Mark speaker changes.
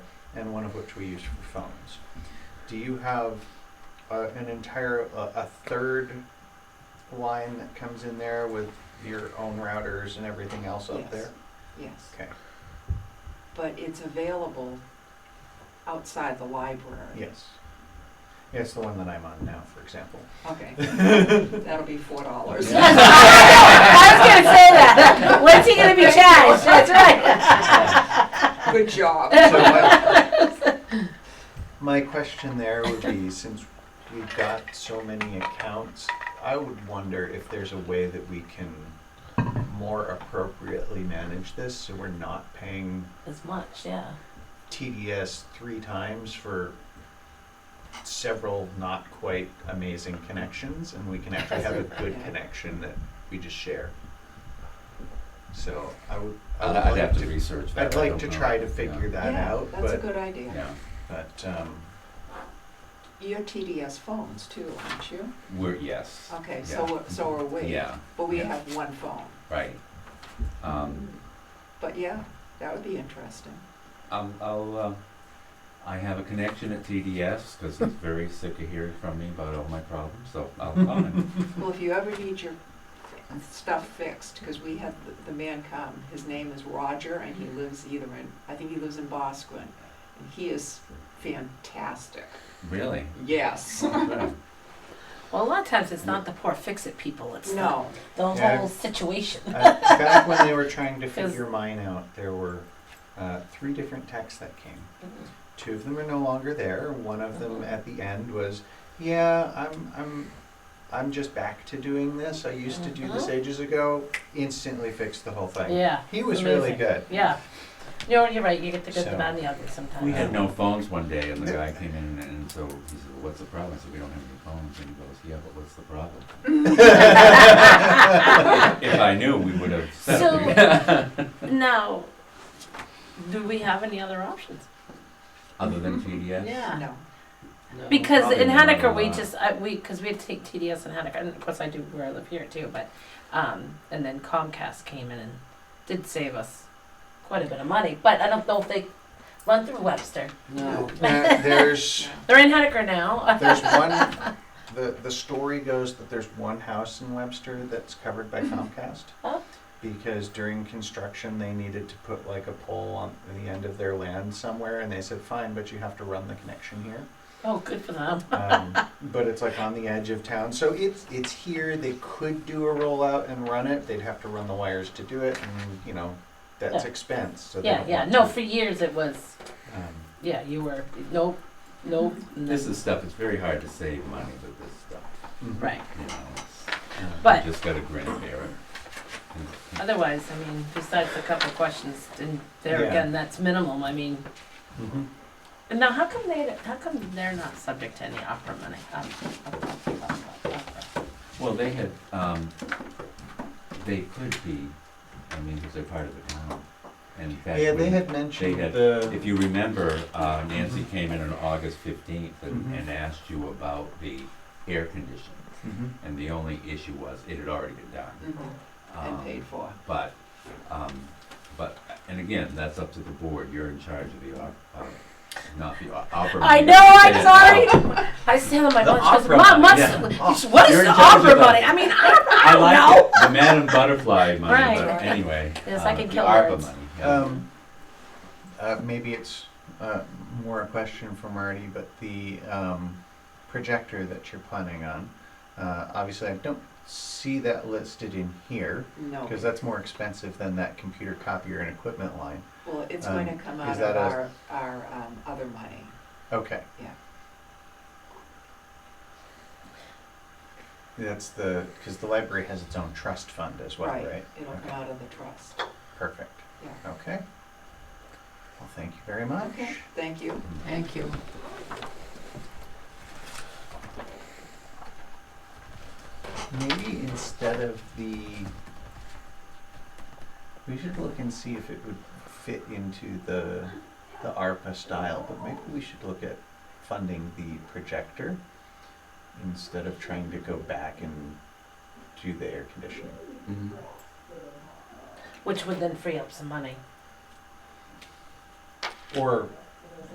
Speaker 1: and one of which we use for phones. Do you have uh, an entire uh, a third line that comes in there with your own routers and everything else up
Speaker 2: Yes.
Speaker 1: there?
Speaker 2: Yes,
Speaker 1: Okay.
Speaker 2: but it's available outside the library.
Speaker 1: Yes. Yeah, it's the one that I'm on now, for example.
Speaker 2: Okay, that'll be four dollars.
Speaker 1: Yeah.
Speaker 3: I was gonna say that. When's he gonna be charged? That's right.
Speaker 2: Good job.
Speaker 1: So my- My question there would be, since we've got so many accounts, I would wonder if there's a way that we can more appropriately manage this, so we're not paying
Speaker 3: As much, yeah.
Speaker 1: TDS three times for several not quite amazing connections, and we can actually have a good connection that we just share. So I would, I
Speaker 4: I'd,
Speaker 1: would
Speaker 4: I'd
Speaker 1: like
Speaker 4: have to
Speaker 1: to,
Speaker 4: research that.
Speaker 1: I'd
Speaker 4: I
Speaker 1: like
Speaker 4: don't
Speaker 1: to
Speaker 4: know.
Speaker 1: try to figure that
Speaker 2: Yeah,
Speaker 1: out,
Speaker 2: That's a
Speaker 1: but,
Speaker 2: good
Speaker 4: Yeah.
Speaker 2: idea.
Speaker 4: yeah.
Speaker 1: but, um,
Speaker 2: You're TDS phones too, aren't you?
Speaker 4: We're, yes.
Speaker 2: Okay,
Speaker 4: Yeah.
Speaker 2: so, we're- so are we.
Speaker 4: Yeah,
Speaker 2: But we
Speaker 4: yeah.
Speaker 2: have one phone.
Speaker 4: right. Um,
Speaker 2: But yeah, that would be interesting.
Speaker 4: um, I'll, uh, I have a connection at TDS because he's very sick of hearing from me about all my problems, so I'll call him.
Speaker 2: Well, if you ever need your stuff fixed, because we had the- the man come, his name is Roger, and he lives either in, I think he lives in Bosquen, and he is fantastic.
Speaker 4: Really?
Speaker 2: Yes.
Speaker 3: Well, a lot of times it's not the poor fix-it people, it's the,
Speaker 2: No,
Speaker 3: the
Speaker 1: Yeah.
Speaker 3: whole situation.
Speaker 1: Uh, back when they were trying to
Speaker 3: 'Cause-
Speaker 1: figure mine out, there were uh, three different texts that came. Two of them are no longer there. One of them
Speaker 3: Mhm.
Speaker 1: at the end was, "Yeah, I'm, I'm, I'm just back to doing this. I used to do this
Speaker 3: Mhm.
Speaker 1: ages ago. Instantly fixed the whole thing."
Speaker 3: Yeah,
Speaker 1: He was really
Speaker 3: Amazing.
Speaker 1: good.
Speaker 3: yeah. You're, you're right, you get the good, the
Speaker 1: So,
Speaker 3: bad, and the ugly sometimes.
Speaker 4: We had no phones one day, and the guy came in, and so he said, "What's the problem?" I said, "We don't have any phones." And he goes, "Yeah, but what's the problem?" if I knew, we would have said it.
Speaker 3: So, now, do we have any other options?
Speaker 4: Other than TDS,
Speaker 3: Yeah.
Speaker 2: no.
Speaker 3: Because
Speaker 4: Probably
Speaker 3: in
Speaker 4: not a
Speaker 3: Henniker, we
Speaker 4: lot.
Speaker 3: just, I, we, because we had to take TDS in Henniker, and of course I do where I live here too, but, um, and then Comcast came in and did save us quite a bit of money, but I don't know if they run through Webster.
Speaker 1: No. there's
Speaker 2: Mm-hmm.
Speaker 3: They're in Henniker now. Uh,
Speaker 1: there's one. The, the story goes that there's one house in Webster that's covered by Comcast
Speaker 3: Oh.
Speaker 1: because during construction they needed to put like a pole on the end of their land somewhere, and they said, "Fine, but you have to run the connection here."
Speaker 3: Oh, good for them.
Speaker 1: Um, but it's like on the edge of town, so it's it's here. They could do a rollout and run it. They'd have to run the wires to do it, and you know that's
Speaker 3: Yeah.
Speaker 1: expense. So they
Speaker 3: Yeah,
Speaker 1: don't
Speaker 3: yeah.
Speaker 1: want
Speaker 3: No,
Speaker 1: to.
Speaker 3: for years it was,
Speaker 1: Um,
Speaker 3: yeah, you were, no, no.
Speaker 4: this is stuff. It's very hard to save money with this stuff.
Speaker 1: mhm.
Speaker 3: Right.
Speaker 4: You know, it's,
Speaker 1: Um,
Speaker 3: But
Speaker 4: just got to grin and bear it.
Speaker 3: otherwise, I mean, besides a couple of questions, and there
Speaker 1: Yeah.
Speaker 3: again, that's minimal. I mean,
Speaker 1: mhm.
Speaker 3: and now how come they, how come they're not subject to any opera money? Um, opera, opera, opera.
Speaker 4: Well, they had, um, they could be, I mean, because they're part of the town. And in fact,
Speaker 1: Yeah, they
Speaker 4: when-
Speaker 1: had mentioned
Speaker 4: had-
Speaker 1: the
Speaker 4: If you remember, uh, Nancy came in on August fifteenth and,
Speaker 1: Mhm.
Speaker 4: and asked you about the air conditioning.
Speaker 1: Mhm.
Speaker 4: And the only issue was, it had already been done.
Speaker 2: Mhm. And
Speaker 4: Um,
Speaker 2: paid for.
Speaker 4: But, um, but, and again, that's up to the board, you're in charge of the op, uh, not the uh, o- opera.
Speaker 3: I
Speaker 4: You
Speaker 3: know,
Speaker 4: said
Speaker 3: I'm
Speaker 4: it now.
Speaker 3: sorry. I stand on my
Speaker 4: The
Speaker 3: lunch. I was
Speaker 4: opera
Speaker 3: like, Mom,
Speaker 4: money,
Speaker 3: what's, what is
Speaker 4: You're
Speaker 3: the
Speaker 4: in charge of
Speaker 3: opera
Speaker 4: that.
Speaker 3: money? I mean, opera, I
Speaker 4: I
Speaker 3: don't
Speaker 4: like
Speaker 3: know.
Speaker 4: it. the Madam Butterfly money,
Speaker 3: Right.
Speaker 4: but anyway.
Speaker 3: Yes, I
Speaker 4: uh,
Speaker 3: can
Speaker 4: the
Speaker 3: kill
Speaker 4: ARPA
Speaker 3: birds.
Speaker 4: money. yeah.
Speaker 1: Um, uh, maybe it's uh, more a question for Marty, but the um, projector that you're planning on, uh, obviously I don't see that listed in here
Speaker 2: No.
Speaker 1: because that's more expensive than that computer copier and equipment line.
Speaker 2: Well, it's going
Speaker 1: um,
Speaker 2: to come
Speaker 1: is
Speaker 2: out
Speaker 1: that
Speaker 2: of
Speaker 1: a-
Speaker 2: our, our um, other money.
Speaker 1: Okay.
Speaker 2: Yeah.
Speaker 1: That's the because the library has its own trust fund as well, right?
Speaker 2: It'll come
Speaker 1: Okay.
Speaker 2: out of the trust.
Speaker 1: Perfect.
Speaker 2: Yeah.
Speaker 1: Okay. Well, thank you very much.
Speaker 2: Okay, thank you.
Speaker 5: Thank you.
Speaker 1: Maybe instead of the, we should look and see if it would fit into the, the ARPA style, but maybe we should look at funding the projector instead of trying to go back and do the air conditioning.
Speaker 4: Mhm.
Speaker 3: Which would then free up some money.
Speaker 1: Or